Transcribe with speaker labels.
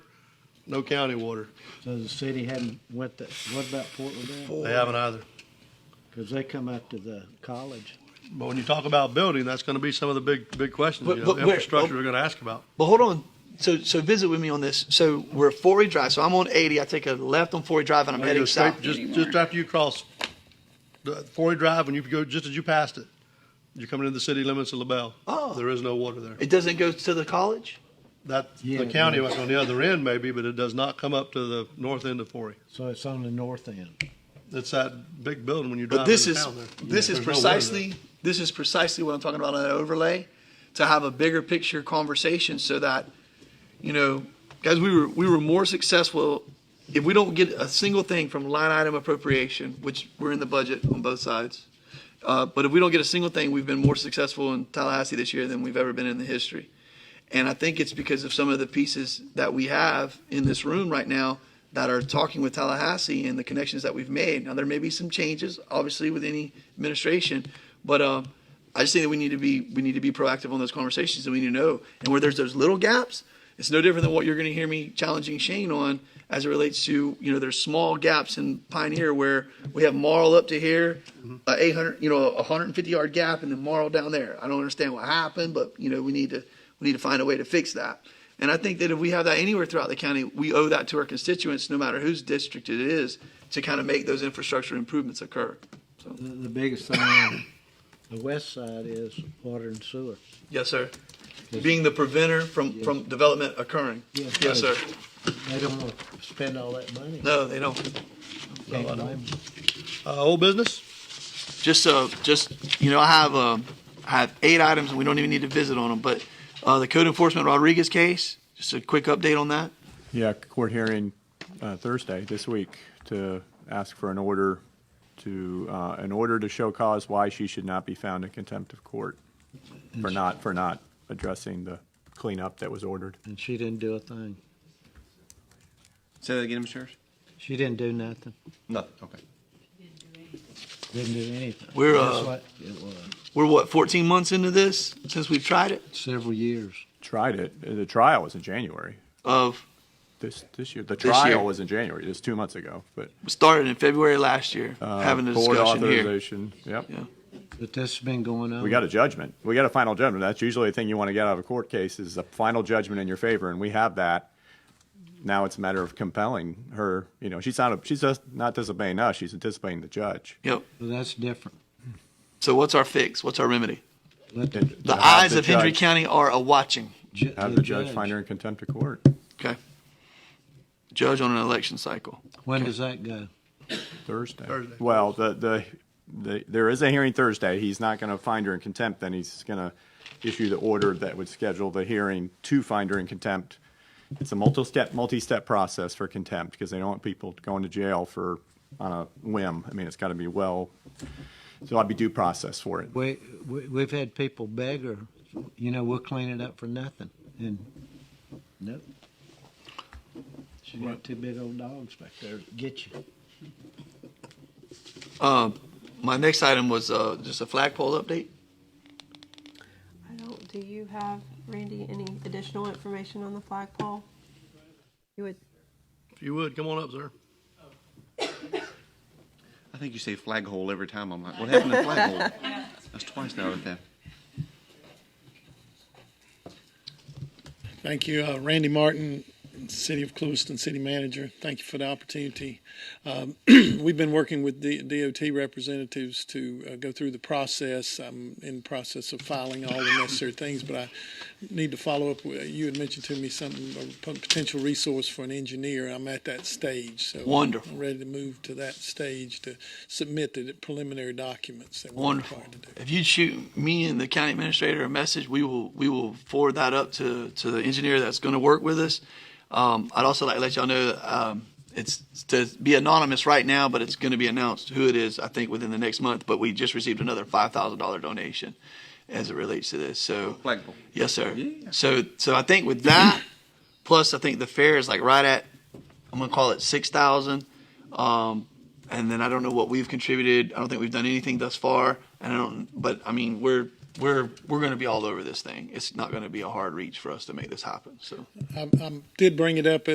Speaker 1: No county water.
Speaker 2: So the city hadn't went that, what about Portland then?
Speaker 1: They haven't either.
Speaker 2: Cause they come up to the college.
Speaker 1: But when you talk about building, that's going to be some of the big, big questions,
Speaker 3: But-
Speaker 1: you know,
Speaker 3: but where- oh,
Speaker 1: infrastructure we're going to ask about.
Speaker 3: But hold on. So so visit with me on this. So we're at Forey Drive. So I'm on 80. I take a left on Forey Drive and I'm
Speaker 1: You
Speaker 3: heading
Speaker 1: go straight-
Speaker 3: south.
Speaker 1: Just, just after you cross the Forty Drive, when you go, just as you passed it, you're coming into the city limits of LaBelle.
Speaker 3: Oh.
Speaker 1: There is no water there.
Speaker 3: It doesn't go to the college.
Speaker 1: That,
Speaker 2: Yeah,
Speaker 1: the county
Speaker 2: yeah.
Speaker 1: was on the other end maybe, but it does not come up to the north end of Forty.
Speaker 2: So it's on the north end.
Speaker 1: It's that big building when you
Speaker 3: But
Speaker 1: drive
Speaker 3: this
Speaker 1: into
Speaker 3: is
Speaker 1: town there.
Speaker 3: this is
Speaker 1: There's no water there.
Speaker 3: precisely this is precisely what I'm talking about on that overlay, to have a bigger picture conversation so that, you know, guys, we were we were more successful if we don't get a single thing from line item appropriation, which we're in the budget on both sides. Uh, but if we don't get a single thing, we've been more successful in Tallahassee this year than we've ever been in the history. And I think it's because of some of the pieces that we have in this room right now that are talking with Tallahassee and the connections that we've made. Now, there may be some changes, obviously, with any administration, but um, I just think that we need to be we need to be proactive on those conversations, and we need to know. And where there's those little gaps, it's no different than what you're going to hear me challenging Shane on as it relates to you know there's small gaps in Pioneer where we have Marl up to here, a 800 you know a 150 yard gap, and then Marl down there. I don't understand what happened, but you know we need to we need to find a way to fix that. And I think that if we have that anywhere throughout the county, we owe that to our constituents, no matter whose district it is, to kind of make those infrastructure improvements occur.
Speaker 2: The, the biggest thing on the west side is water and sewer.
Speaker 3: Yes, sir. Being the preventer from, from development occurring.
Speaker 2: Yes.
Speaker 3: Yes, sir.
Speaker 2: They don't wanna spend all that money.
Speaker 3: No, they don't.
Speaker 2: Can't blame 'em.
Speaker 1: Uh, old business?
Speaker 3: just uh, just you know, I have uh, I have eight items, and we don't even need to visit on them. But uh, the code enforcement Rodriguez case, just a quick update on that.
Speaker 4: Yeah, court hearing uh, Thursday this week to ask for an order to, uh, an order to show cause why she should not be found in contempt of court for not, for not addressing the cleanup that was ordered.
Speaker 2: And she didn't do a thing.
Speaker 5: Say that again, Mr. Church?
Speaker 2: She didn't do nothing.
Speaker 5: Nothing, okay.
Speaker 2: Didn't do anything.
Speaker 3: We're,
Speaker 2: That's
Speaker 3: uh,
Speaker 2: what It was
Speaker 3: We're what 14 months into this since we've tried it.
Speaker 2: several years.
Speaker 4: Tried it, uh, the trial was in January,
Speaker 3: Of
Speaker 4: this, this year. The
Speaker 3: This year.
Speaker 4: trial was in January, just two months ago, but.
Speaker 3: we started in February last year,
Speaker 4: uh,
Speaker 3: having a
Speaker 4: board
Speaker 3: discussion here.
Speaker 4: authorization, Yep.
Speaker 3: Yeah.
Speaker 2: But this has been going on.
Speaker 4: We got a judgment. We got a final judgment. That's usually the thing you want to get out of a court case is a final judgment in your favor, and we have that. Now it's a matter of compelling her. You know, she's not. she's just not disobeying us. She's disobeying the judge.
Speaker 3: Yep.
Speaker 2: Well, That's different.
Speaker 3: So what's our fix? What's our remedy?
Speaker 2: Let
Speaker 4: And
Speaker 2: the,
Speaker 4: to
Speaker 3: The
Speaker 4: have
Speaker 3: eyes of Hendry
Speaker 4: judge-
Speaker 3: County are a watching.
Speaker 2: ju-
Speaker 4: Have the judge find her in contempt of court.
Speaker 3: Okay. Judge on an election cycle.
Speaker 2: When does that go?
Speaker 4: Thursday.
Speaker 1: Thursday.
Speaker 4: Well, the, the, the, there is a hearing Thursday. He's not going to find her in contempt, then he's going to issue the order that would schedule the hearing to find her in contempt. It's a multi-step, multi-step process for contempt because they don't want people going to jail for, on a whim. I mean, it's got to be well, so I'd be due process for it.
Speaker 2: We, we we've had people beg her, you know, we'll clean it up for nothing, and nope. She got two big old dogs back there to get you.
Speaker 3: Um, my next item was uh, just a flagpole update.
Speaker 6: I don't, do you have, Randy, any additional information on the flagpole? You would,
Speaker 1: If you would, come on up, sir.
Speaker 5: I think you say flag hole every time. I'm like, what happened to flag hole? That's twice now with that.
Speaker 7: Thank you, Uh, Randy Martin, City of Clewiston City Manager. Thank you for the opportunity. Um, We've been working with the DOT representatives to uh, go through the process. I'm in the process of filing all the necessary things, but I need to follow up. with- You had mentioned to me something, a p- potential resource for an engineer. I'm at that stage, so.
Speaker 3: Wonderful.
Speaker 7: I'm ready to move to that stage to submit the preliminary documents that we're
Speaker 3: Wonderful.
Speaker 7: required to do.
Speaker 3: If you shoot me and the county administrator a message, we will, we will forward that up to, to the engineer that's going to work with us. Um, I'd also like to let y'all know, that, um, it's it's to be anonymous right now, but it's going to be announced who it is, I think, within the next month. But we just received another $5,000 donation as it relates to this. So,
Speaker 5: Flag hole.
Speaker 3: yes, sir.
Speaker 5: Yeah.
Speaker 3: So, so I think with that, plus I think the fair is like right at, I'm going to call it 6,000. Um, and then I don't know what we've contributed. I don't think we've done anything thus far. And I don't, but I mean, we're we're we're going to be all over this thing. It's not going to be a hard reach for us to make this happen. So.
Speaker 7: I I did bring it up